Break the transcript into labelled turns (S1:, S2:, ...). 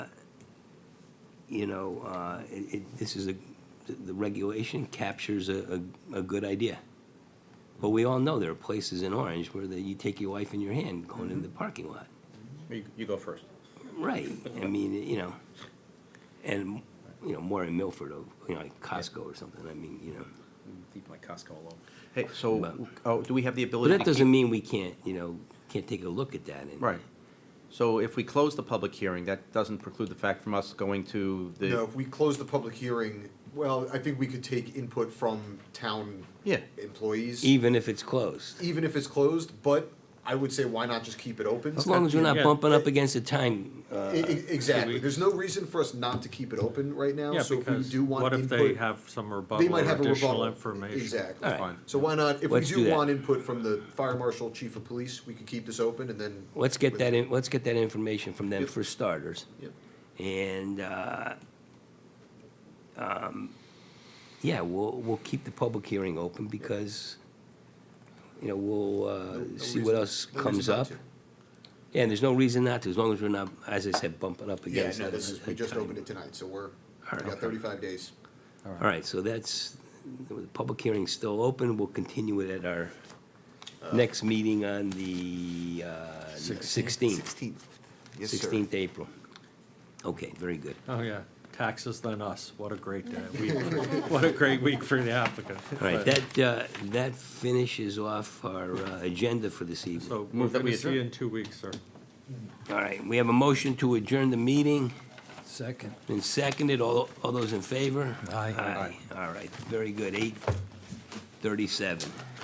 S1: you know, uh, it, it, this is a, the- the regulation captures a, a, a good idea. But we all know there are places in Orange where the, you take your wife in your hand going in the parking lot.
S2: You, you go first.
S1: Right, I mean, you know, and, you know, more in Milford, or, you know, like Costco or something, I mean, you know.
S2: Leave my Costco alone.
S3: Hey, so, oh, do we have the
S1: But
S3: ability
S1: that
S3: to keep?
S1: doesn't mean we can't, you know, can't take a look at that and.
S3: Right. So if we close the public hearing, that doesn't preclude the fact from us going to the.
S4: No, if we close the public hearing, well, I think we could take input from town
S3: Yeah.
S4: employees,
S1: Even if it's closed,
S4: even if it's closed, but I would say why not just keep it open?
S1: as long as we're not
S2: Yeah.
S1: bumping up against the time,
S4: I-
S1: uh,
S4: I- Exactly, there's no reason for us not to keep it open right now,
S5: Yeah,
S4: so if we
S5: because
S4: do want
S5: what if
S4: input.
S5: they have some
S4: they
S5: rebuttal
S4: might
S5: or
S4: have a
S5: additional
S4: rebuttal.
S5: information?
S4: Exactly.
S1: All right.
S4: So why not, if we
S1: Let's do
S4: do
S1: that.
S4: want input from the fire marshal, chief of police, we could keep this open and then.
S1: let's get that in, let's get that information from them
S4: Yep.
S1: for starters.
S4: Yep.
S1: And, uh, um, yeah, we'll, we'll keep the public hearing open because, you know, we'll,
S4: No-
S1: uh,
S4: no
S1: see what
S4: reason-
S1: else
S4: no reason
S1: comes
S4: not
S1: up.
S4: to.
S1: Yeah, and there's no reason not to, as long as we're not, as I said, bumping up
S4: Yeah,
S1: against.
S4: no,
S1: a-
S4: this is,
S1: a
S4: we just
S1: time.
S4: opened it tonight, so we're,
S1: right.
S4: we got thirty-five days.
S1: All right, so that's, the public hearing's still open, we'll continue it at our
S4: Uh,
S1: next meeting on the uh, 16th,
S4: Sixteenth. Yes, sir.
S1: 16th April. Okay, very good.
S5: Oh, yeah, taxes than us, what a great day, week, what a great week for the applicant.
S1: All right,
S5: But-
S1: that, uh, that finishes off our uh, agenda for this evening.
S5: So we're
S3: Move that we
S5: gonna see you
S3: adjourn.
S5: in two weeks, sir.
S1: All right, we have a motion to adjourn the meeting,
S6: Second.
S1: been seconded, all, all those in favor?
S6: Aye.
S1: Aye, all right, very good, 8:37.